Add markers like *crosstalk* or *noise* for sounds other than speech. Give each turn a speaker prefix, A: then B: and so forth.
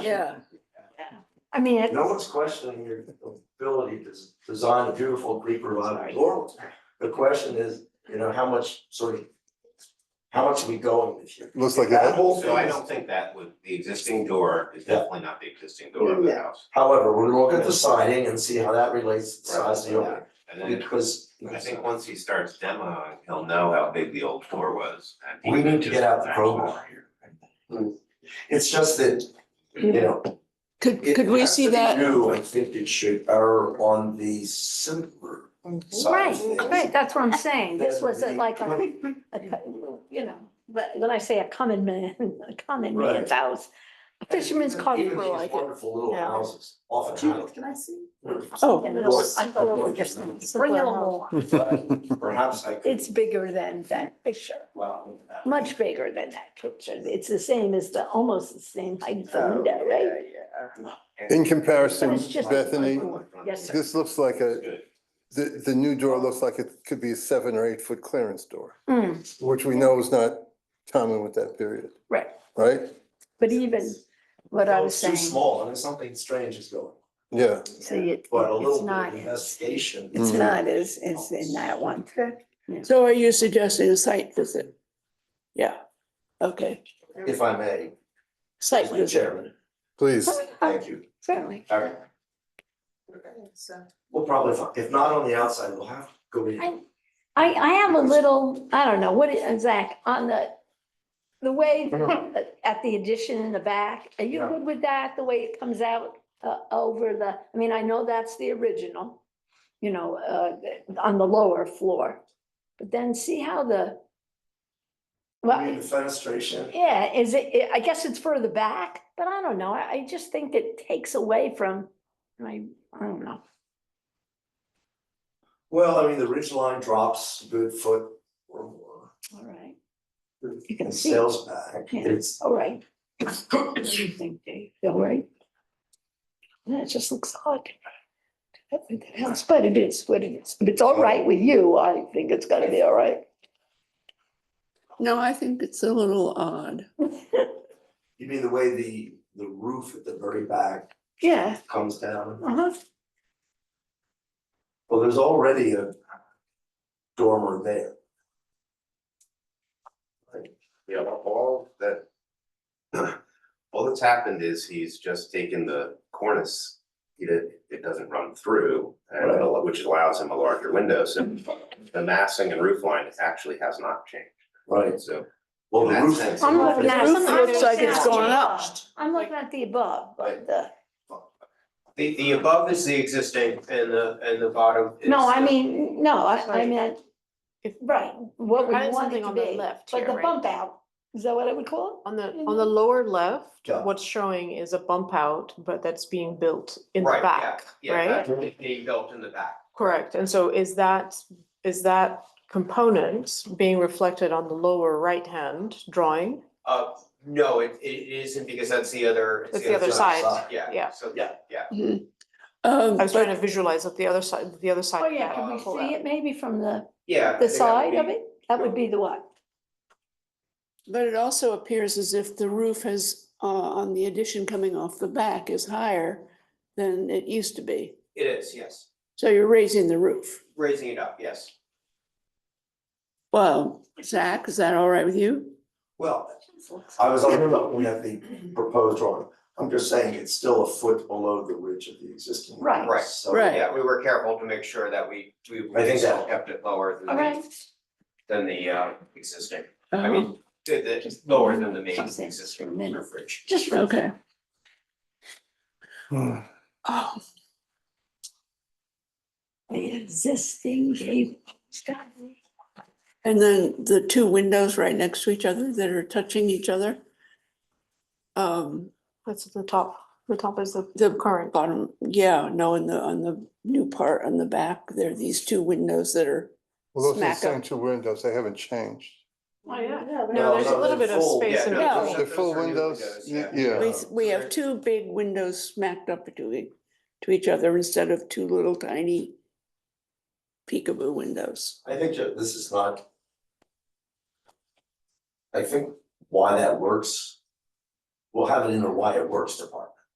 A: Yeah.
B: I mean, it's,
C: No one's questioning your ability to s- design a beautiful Greek Roman laurels. The question is, you know, how much sort of, how much are we going this year?
D: Looks like
C: That
D: that.
C: whole
E: So I
C: thing,
E: don't
C: is-
E: think that would, the existing door is
C: Yeah.
E: definitely not the existing door of the house.
C: however, we're looking at the siding and see how that relates to the size of the
E: Right.
C: opening,
E: And then
C: because.
E: I think once he starts demoing, he'll know how big the old door was. and he
C: We need
E: can
C: to
E: just
C: get out the
E: match
C: crowbar
E: that.
C: here. It's just that, you know,
B: *clears throat*
A: Could,
C: It
A: could we
C: has
A: see
C: to be
A: that?
C: New, I think it should err on the simpler side
B: Mm-hmm. right,
C: of things.
B: right, that's what I'm saying. This was a- like a,
C: Right.
B: *laughs* a co- you know, but when I say a common man, a common man's house, a fisherman's cottage
C: Even
B: for
C: these
B: like it.
C: Wonderful little
B: Yeah.
C: houses, often
F: Judith, can I see?
A: Oh.
B: And
C: Look.
B: it's- I thought it was just a
F: Bring it
B: simple house.
F: along.
D: *laughs*
C: but Perhaps I could,
B: It's bigger than that picture,
C: well. uh,
B: much bigger than that picture. It's the same as the, almost the same height as
C: Oh,
B: the window, right?
D: In comparison,
B: But it's just-
D: Bethany,
B: Yes, sir.
D: this looks like a,
E: Good.
D: the, the new door looks like it could be a seven or eight foot clearance door,
B: Mm,
D: which we know is not common with that period,
B: Right,
D: right?
B: but even what I
C: Well,
B: was
C: it's too
B: saying,
C: small and something strange is going,
D: Yeah,
B: see, it,
C: but a
B: it's
C: little bit
B: not,
C: of investigation.
B: it's
D: Mm.
B: not as, as in that one.
A: So are you suggesting a site visit? Yeah, okay,
C: If I may,
A: site
C: Mr.
A: visit.
C: Chairman,
D: please.
C: thank you.
B: *laughs* Certainly.
C: All right,
F: So,
C: we'll probably, fi- if not on the outside, we'll have to go in.
B: I, I, I have a little, I don't know, what is, Zach, on the, the way *laughs* at the addition in the back, are you
C: Yeah.
B: good with that, the way it comes out uh, over the, I mean, I know that's the original, you know, uh, on the lower floor, but then see how the,
C: I
B: well,
C: mean, the fenestration,
B: yeah, is it, I guess it's further back, but I don't know, I, I just think it takes away from, my, I don't know.
C: well, I mean, the ridge line drops a good foot or more.
B: All right,
C: You
B: can see.
C: Sales back,
B: Yeah.
C: it's,
B: all right. What do you think, Dave? All right. Yeah, it just looks odd. I think it helps, But it is what it is. If it's all right with you, I think it's gonna be all right.
A: No, I think it's a little odd.
C: you mean the way the, the roof at the very back
B: Yeah.
C: comes down?
B: Uh-huh.
C: Well, there's already a dormer there.
E: *laughs* Yeah, all that. *clears throat* All that's happened is he's just taken the cornice, he did, it doesn't run through, and it al- which allows him a larger window, so. The massing and roof line actually has not changed,
C: Right.
E: so.
C: Well, the
E: In that
C: roof.
E: sense,
B: I'm
E: it's-
B: looking at,
A: roof
B: I'm looking
A: looks like it's
B: at
A: gone
B: the
A: up.
B: above. I'm looking at the above, but the,
G: The, the above is the existing and the, and the bottom is.
B: no, I mean, no, I, I
G: Sorry.
B: meant, right, what we
H: I had
B: want it
H: something
B: to
H: on the
B: be.
H: left
B: Like
H: here,
B: the
H: right?
B: bump out, is that what I would call
H: On the, on the lower left,
C: Yeah.
H: what's showing is a bump out, but that's being built in the
G: Right, yeah,
H: back,
G: Yeah,
H: right?
G: that's being built in the back.
H: Correct, and so is that, is that component being reflected on the lower right-hand drawing?
G: Uh, no, it, it isn't because that's the other. it's
H: That's the other side,
G: Yeah,
H: yeah.
G: so, yeah, yeah.
A: Um,
H: I was
A: but-
H: trying to visualize what the other side, the other
B: it?
H: side.
B: Oh, yeah,
H: would
B: could we
H: pull
B: see
H: out.
B: it maybe from the,
G: Yeah. I
B: the
G: think that would
B: side of
G: be-
B: it? That would be the what?
A: But it also appears as if the roof has, uh, on the addition coming off the back is higher than it used to be.
G: It is, yes.
A: So you're raising the roof.
G: Raising it up, yes.
A: Well, Zach, is that all right with you?
C: Well, I was on, looking at the proposed drawing, I'm just saying it's still a foot below the ridge of the existing.
B: Right.
C: house,
G: Right.
C: so-
A: Right.
G: Yeah, we were careful to make sure that we, we
C: I think
G: still
C: that-
G: kept it lower than
B: All right.
G: the, than the uh, existing. I mean, the, the,
B: Uh-huh. Just-
G: lower than the main
B: Something.
G: existing roof ridge.
B: Just for
A: Um, Okay.
B: Oh. The existing gable.
A: And then the two windows right next to each other that are touching each other. Um,
H: That's at the top, the top is the
A: the
H: current,
A: bottom, yeah, no, on the, on the new part on the back, there are these two windows that are,
D: Well, those are the
A: Smack
D: same
A: 'em.
D: two windows, they haven't changed.
H: Oh, yeah.
C: No,
H: no, there's
C: no,
H: a little
C: they're
H: bit of
C: full.
H: space
G: Yeah,
H: in
G: no,
H: between.
A: Yeah.
G: those-
D: The
G: those
D: full
G: are new
D: windows, y- yeah.
A: we, we have two big windows smacked up to, e- to each other instead of two little tiny peekaboo windows.
C: I think that this is not. I think why that works. We'll have it in the why it works department.